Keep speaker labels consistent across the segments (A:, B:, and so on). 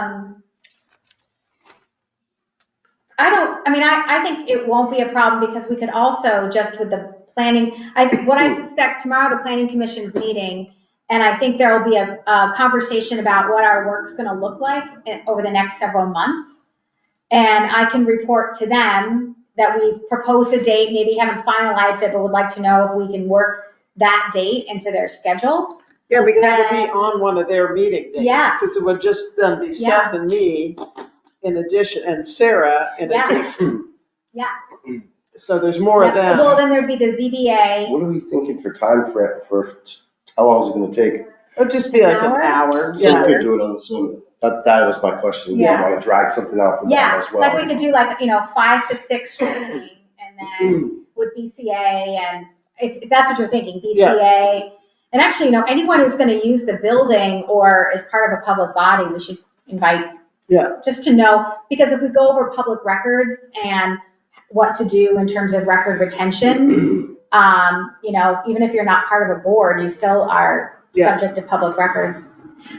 A: Um, I mean, I, I think it won't be a problem because we could also, just with the planning, I, what I suspect tomorrow, the planning commission's meeting, and I think there will be a, a conversation about what our work's gonna look like in- over the next several months. And I can report to them that we proposed a date, maybe haven't finalized it, but would like to know if we can work that date into their schedule.
B: Yeah, we can have it be on one of their meeting days.
A: Yeah.
B: Because it would just then be
A: Yeah.
B: Seth and me in addition, and Sarah in
A: Yeah.
B: addition.
A: Yeah.
B: So there's more of
A: Well,
B: them.
A: then there'd be the ZBA,
C: What are we thinking for time frame for, how long is it gonna take?
B: It'd just be like an
A: Hour?
B: hour,
C: So
B: yeah.
C: we could do it on the Zoom. That, that was my question. We
A: Yeah.
C: don't wanna drag something out for that
A: yeah,
C: as well.
A: like we could do like, you know, five to six training, and then with BCA and, if, if that's what you're thinking,
B: Yeah.
A: BCA. And actually, you know, anyone who's gonna use the building or is part of a public body, we should invite.
B: Yeah.
A: Just to know, because if we go over public records and what to do in terms of record retention, um, you know, even if you're not part of a board, you still are
B: Yeah.
A: subject to public records.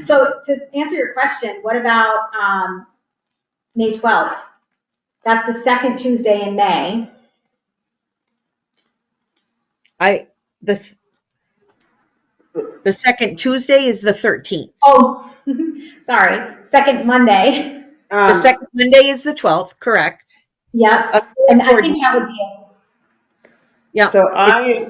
A: So to answer your question, what about, um, May twelfth? That's the second Tuesday in May.
D: I, this, the second Tuesday is the 13th.
A: Oh, sorry, second Monday.
D: The
B: Um,
D: second Monday is the 12th, correct?
A: Yep.
D: Of
A: And I think
D: accordance.
A: that would be it.
D: Yeah.
B: So I,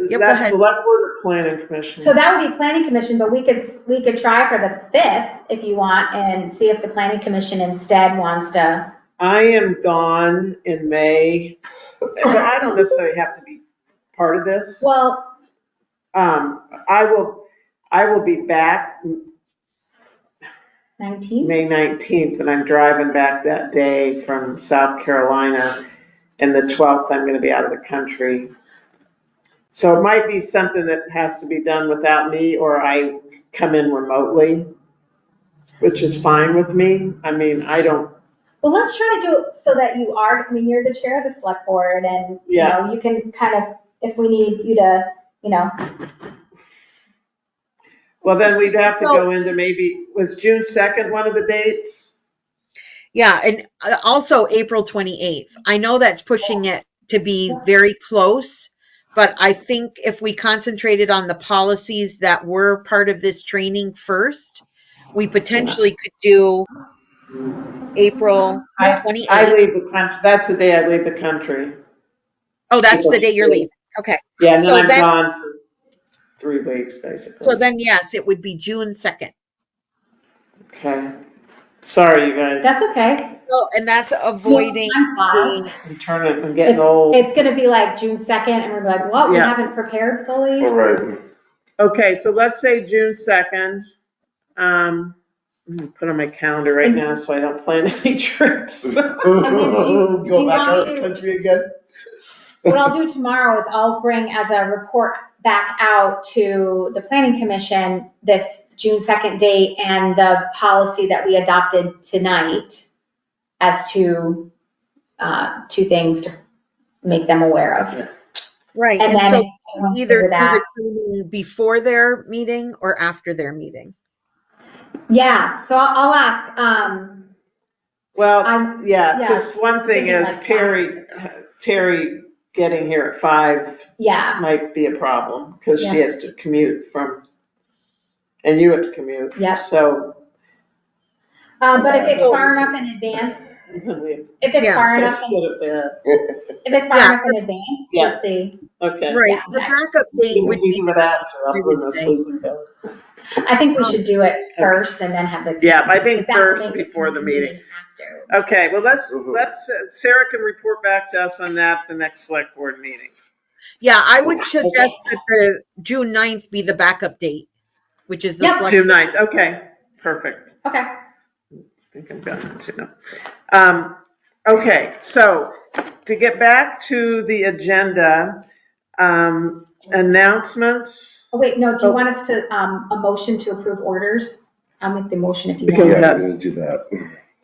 D: go
B: that's
D: ahead.
B: select board or planning commission.
A: So that would be planning commission, but we could, we could try for the fifth if you want and see if the planning commission instead wants to.
B: I am gone in May, but I don't necessarily have to be part of this.
A: Well,
B: Um, I will, I will be back
A: nineteenth,
B: May 19th, and I'm driving back that day from South Carolina. And the 12th, I'm gonna be out of the country. So it might be something that has to be done without me, or I come in remotely, which is fine with me. I mean, I don't,
A: well, let's try to do it so that you are, I mean, you're the chair of the select board and, you
B: Yeah.
A: know, you can kind of, if we need you to, you know,
B: well, then we'd have to go into maybe, was June 2nd one of the dates?
D: Yeah, and uh, also April 28th. I know that's pushing it to be very close, but I think if we concentrated on the policies that were part of this training first, we potentially could do April
B: I-
D: 28th.
B: I leave the country, that's the day I leave the country.
D: Oh, that's the day you're leaving. Okay.
B: Yeah, and
D: So
B: then I'm
D: then-
B: gone for three weeks, basically.
D: So then, yes, it would be June 2nd.
B: Okay. Sorry, you guys.
A: that's okay.
D: So, Oh, and that's avoiding
A: Time flies.
D: the,
B: I'm turning, I'm getting old.
A: It's gonna be like June second and we're like, what, we
B: Yeah.
A: haven't prepared fully?
C: All right.
B: Okay, so let's say June 2nd. Um, I'm gonna put on my calendar right now so I don't plan any trips.
A: you- do you
C: Go back
A: want
C: out
A: me
C: of
A: to-
C: the country again?
A: What I'll do tomorrow is I'll bring as a report back out to the planning commission this June second date and the policy that we adopted tonight as to, uh, two things to make them aware of.
D: right,
A: And
D: and so
A: then once we
D: either
A: do
D: do
A: that,
D: the training before their meeting or after their meeting.
A: yeah, so I'll, I'll ask, um,
B: Well,
A: I'm-
B: Um, yeah,
A: yeah,
B: because one thing
A: thinking
B: is
A: like
B: Terry, Terry getting here at five
A: yeah,
B: might be a problem because she
A: Yeah.
B: has to commute from, and you have to commute.
A: Yep.
B: So.
A: um, but if it's far enough in advance, if it's
D: Yeah.
A: far enough, in-
B: Go to bed.
A: if it's far
D: Yeah.
A: enough in advance,
B: Yeah.
A: we'll see.
B: Okay.
D: Right,
A: Yeah.
D: the backup date
B: We
D: would
B: can
D: be,
B: do it after, I'll put my
D: Wednesday.
B: sleeping bag.
A: I think we should do it first and then have the.
B: Yeah, I think
A: Exactly.
B: first before the meeting.
A: After.
B: Okay, well, let's,
C: Mhm.
B: let's, uh, Sarah can report back to us on that the next select board meeting.
D: yeah, I would suggest that the June 9th be the backup date, which is the
A: Yep.
D: select.
B: June ninth, okay, perfect.
A: Okay.
B: I think I'm done too. Um, okay, so to get back to the agenda, um, announcements.
A: Oh, wait, no, do you
B: Oh.
A: want us to, um, a motion to approve orders? I'll make the motion if you
B: Okay.
A: want.
C: Yeah, we're gonna do that.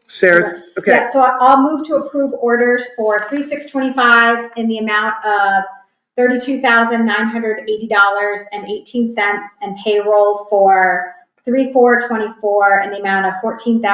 B: Sarah's, okay,
A: Yeah, so I- I'll move to approve orders for three six twenty-five in the amount of thirty-two thousand nine hundred eighty dollars and eighteen cents and payroll for three four twenty-four in the amount of fourteen thousand